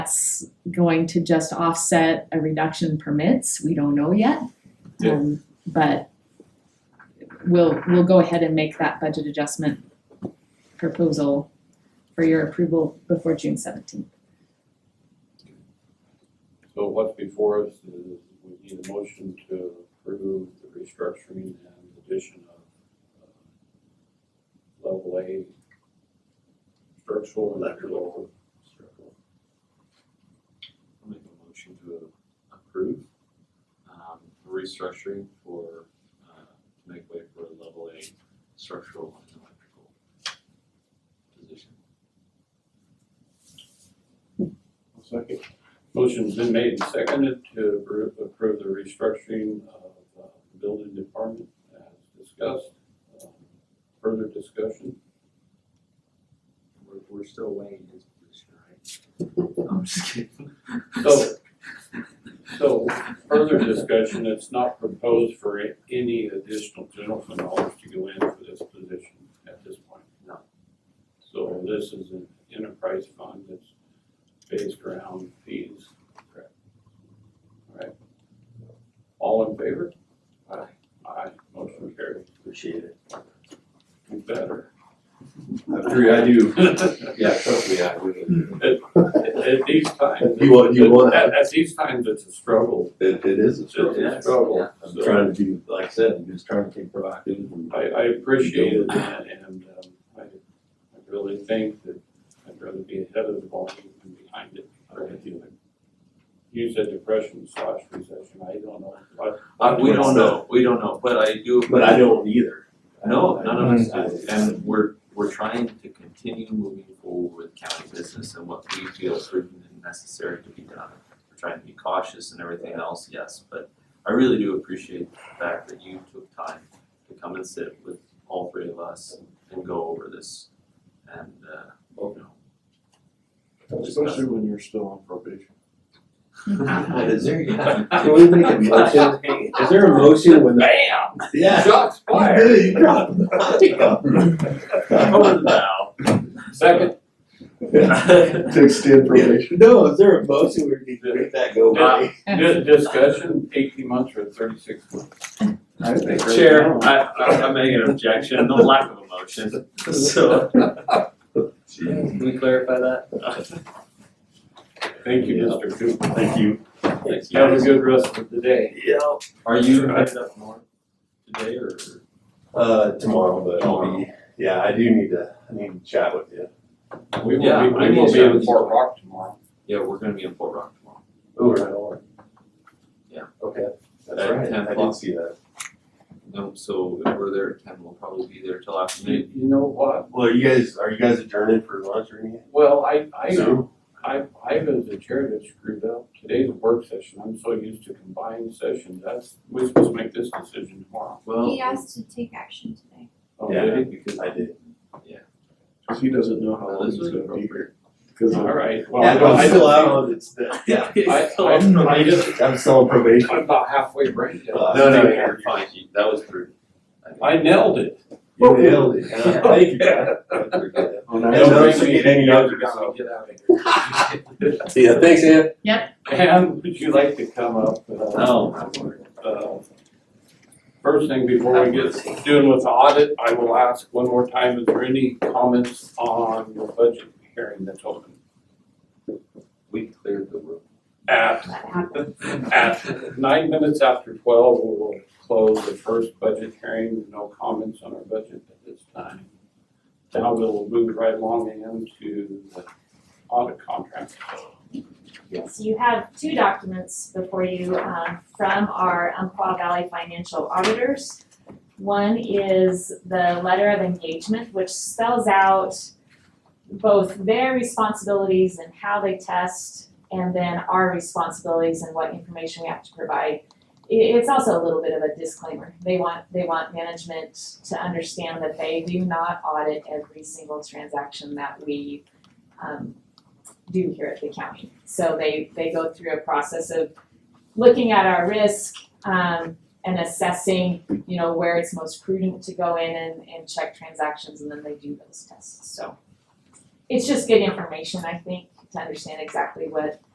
that's going to just offset a reduction in permits, we don't know yet. Yeah. Um, But we'll, we'll go ahead and make that budget adjustment proposal for your approval before June seventeenth. So what's before us is we need a motion to approve the restructuring and addition of uh, level A structural and electrical. structural. I'll make a motion to approve, um, restructuring for, uh, to make way for a level A structural and electrical position. I'll Second. Motion's been made and seconded to approve, approve the restructuring of uh, the building department as discussed. Um, Further discussion? We're, we're still weighing his position, right? I'm just kidding. So, so further discussion, it's not proposed for a- any additional general fund dollars to go in for this position at this point? No. So this is an enterprise fund that's based around fees? Correct. Alright. All in favor? Aye. Aye, motion carried. Appreciate it. You better. After I do, At, yeah, trust me, I would. at these times. You want- you want- At, at these times, it's a struggle. It, it is a It's a struggle. struggle. I'm So- trying to do, like I said, I'm just trying to be proactive and. I, I appreciate it and, and, um, I, I really think that I'd rather be ahead of the volume than behind it. I really do like- You said depression slash recession, I don't know, but Uh, we don't know, we don't know, but I do. But I don't either. Hmm. No, none of us I- do, and we're, we're trying to continue moving forward with county business and what we feel is prudent and necessary to be done. We're trying to be cautious and everything else, yes, but I really do appreciate the fact that you took time to come and sit with all three of us and go over this. And, uh, you Especially when you're still on probation. know. Is there, Can we make a motion? Is there a motion when the? Bam! Yeah. Shots You did it, you dropped it. Over the bow. second, To extend probation. No, is there a motion where you can make that go away? di- discussion, eighteen months or thirty-six months. I think right Chair, now- I, I, I make an objection, no lack of emotion, so. Can we clarify that? Thank you, Mr. Cooper. Thank you. Thanks, Have a guys. good rest of the day. Yeah. Are you headed up north today or? Uh, tomorrow, but I'll be, yeah, I do need to, I need to chat with you. We will Yeah, be, I we need will to be in chat. Fort Rock tomorrow. Yeah, we're gonna be in Fort Rock tomorrow. Oh, right, all right. Yeah. Okay, that's At right, 10 I o'clock. did see that. No, so if we're there at ten, we'll probably be there till afternoon. You, you know what? Well, are you guys, are you guys adjourning for lunch or anything? Well, I, I. Zoom? I, I was the chair that screwed up. Today's a work session. I'm so used to combined sessions. That's, we're supposed to make this decision tomorrow. Well, He asked to take action today. Oh, Yeah. really? because I did. Cause he doesn't know how long This he's was gonna be appropriate. here. Cause All right. Well, Yeah, I I'm still out don't on it's, the- yeah, think- I, I, I just, I'm still on probation. I'm about halfway brain dead. Uh, No, no, Thank you're fine, You- that was prudent. I nailed it. You nailed it. Oh, Yeah, Thank you. On I don't that- think we get any You younger, gotta so. get out of Yeah, thanks, Ann. here. And would you like to come up? uh, No. uh, First thing before we get doing with the audit, I will ask one more time, is there any comments on the budget hearing that's open? We cleared the room. At At nine minutes after twelve, we will close the first budget hearing, no comments on our budget at this time. Now we'll move right along into the audit contract. Yes, you have two documents before you um, from our Umpqua Valley Financial Auditors. One is the letter of engagement, which spells out both their responsibilities and how they test, and then our responsibilities and what information we have to provide. I- it's also a little bit of a disclaimer. They want, they want management to understand that they do not audit every single transaction that we um, do here at the county. So they, they go through a process of looking at our risk, um, and assessing, you know, where it's most prudent to go in and, and check transactions, and then they do those tests, so. It's just good information, I think, to understand exactly what